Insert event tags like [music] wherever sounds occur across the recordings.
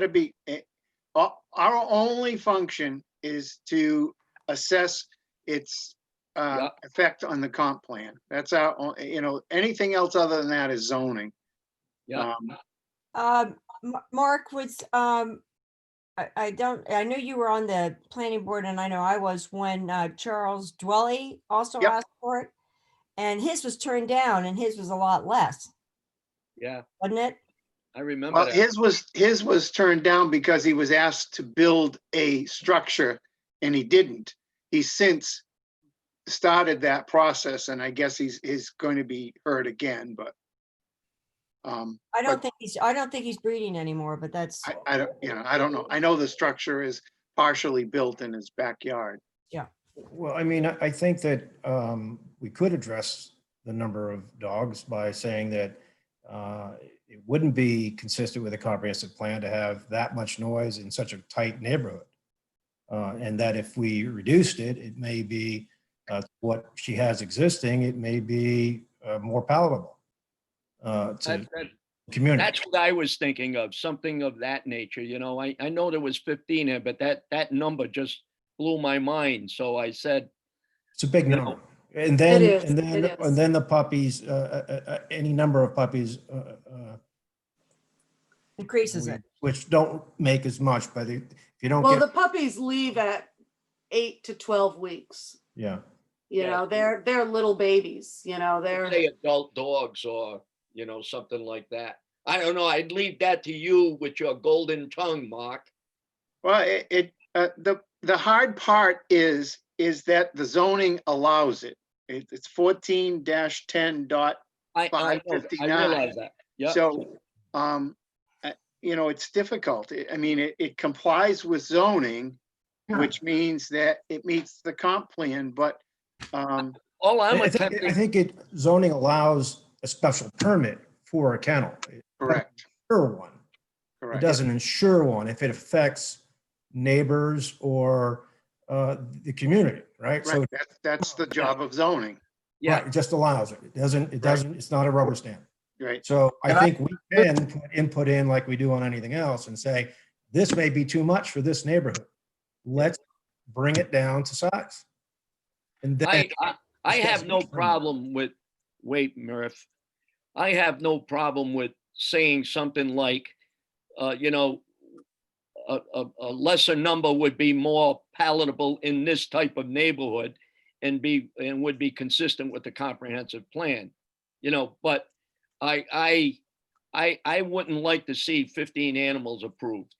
to be, eh, our, our only function is to assess its uh, effect on the comp plan. That's our, on- you know, anything else other than that is zoning. Yeah. Um, Um, M- Mark was, um, I, I don't, I knew you were on the planning board and I know I was when, uh, Charles Dwelly also Yep. asked for it. And his was turned down and his was a lot less, Yeah, wasn't it? I remember Well, that. his was, his was turned down because he was asked to build a structure and he didn't. He's since started that process and I guess he's, he's going to be heard again, but um, I don't But- think he's, I don't think he's breeding anymore, but that's, I, I don't, you know, I don't know. I know the structure is partially built in his backyard. Well, I mean, I I think that um, we could address the number of dogs by saying that uh, it wouldn't be consistent with a comprehensive plan to have that much noise in such a tight neighborhood. Uh, And that if we reduced it, it may be uh, what she has existing, it may be uh, more palatable uh, to That- that- community. That's what I was thinking of, something of that nature, you know, I, I know there was fifteen there, but that, that number just blew my mind, so I said, It's a big No. number. And then, is, and then, it is. and then the puppies, uh, uh, uh, any number of puppies uh, uh, increases we- it. Which don't make as much, but if you don't Well, the get, puppies leave at eight to twelve weeks. yeah, You Yeah. know, they're they're little babies, you know, they're say adult dogs or, you know, something like that. I don't know, I'd leave that to you with your golden tongue, Mark. Well, it, it, uh, the, the hard part is, is that the zoning allows it. It, it's fourteen ten dot I, I, know that, I 559. realize that, yeah. So, um, uh, you know, it's difficult. I- I mean, it, it complies with zoning, Yeah. which means that it meets the comp plan, but, um, [laughs] All I'm I think, I attempting, think it zoning allows a special permit for a kennel. It correct, Sure one. It correct. doesn't insure one if it affects neighbors or uh, the community, right? So Right, that's, that's the job of zoning, yeah, right, It just allows it. It doesn't, it doesn't, it's not a rubber stamp. right? So I And I- think we can put input in like we do on anything else and say, this may be too much for this neighborhood. Let's bring it down to size. And then, I, I, I It's have just no different. problem with, wait, Murph. I have no problem with saying something like, uh, you know, a, a, a lesser number would be more palatable in this type of neighborhood and be, and would be consistent with the comprehensive plan. You know, but I, I, I, I wouldn't like to see fifteen animals approved.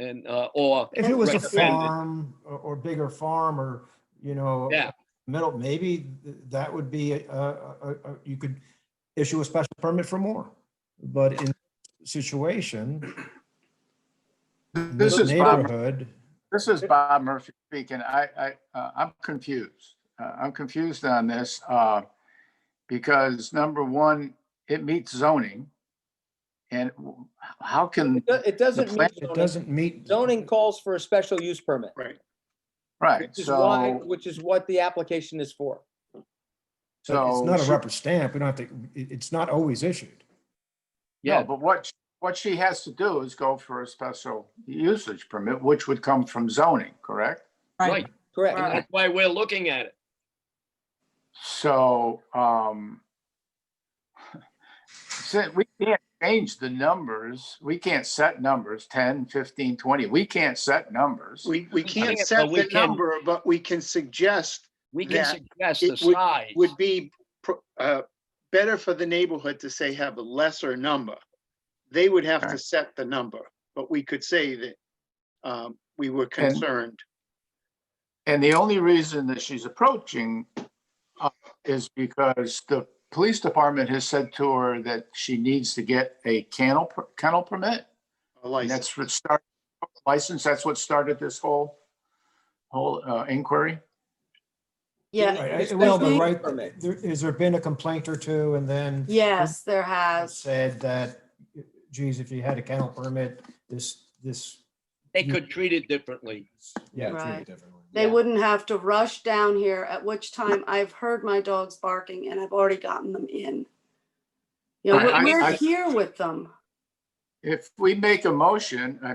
And, uh, or if it was a recommended. farm or, or bigger farm or, you know, Yeah. middle, maybe th- that would be, a- a- a- a- you could issue a special permit for more. But in situation, in This this is Bob, neighborhood, this is Bob Murphy speaking. I, I, uh, I'm confused. Uh, I'm confused on this, uh, because number one, it meets zoning. And w- how can, It do- It doesn't plan- mean it zoning. doesn't meet. Zoning calls for a special use permit, right, which is why, so, which is what the application is for. But It's so. not a she- rubber stamp. We don't have to, it- it's not always issued. Yeah. Oh, No, but what, what she has to do is go for a special usage permit, which would come from zoning, correct? Right, and Correct. that's why we're looking at it. So, um, [laughs] si- we can't change the numbers. We can't set numbers, 10, 15, 20. We can't set numbers. We, we can't but set we the can- number, but we can suggest We can that suggest it the would- size. would be pro- uh, better for the neighborhood to say have a lesser number. They would have to Right. set the number, but we could say that um, we were concerned. And the only reason that she's approaching uh, is because the police department has said to her that she needs to get a kennel, per- kennel permit. a And license. that's what started, license, that's what started this whole, whole uh, inquiry. yeah. Right, it's I- Well, basically but a right, permit. there, has there been a complaint or two and then? Yes, there has. Said that, geez, if you had a kennel permit, this, this. They could treat it differently. Yeah. treat it Right. differently. They wouldn't have to rush down here, at which time I've heard my dogs barking and I've already gotten them in. You know, I- we're- I- we're I- here with them. If we make a motion, I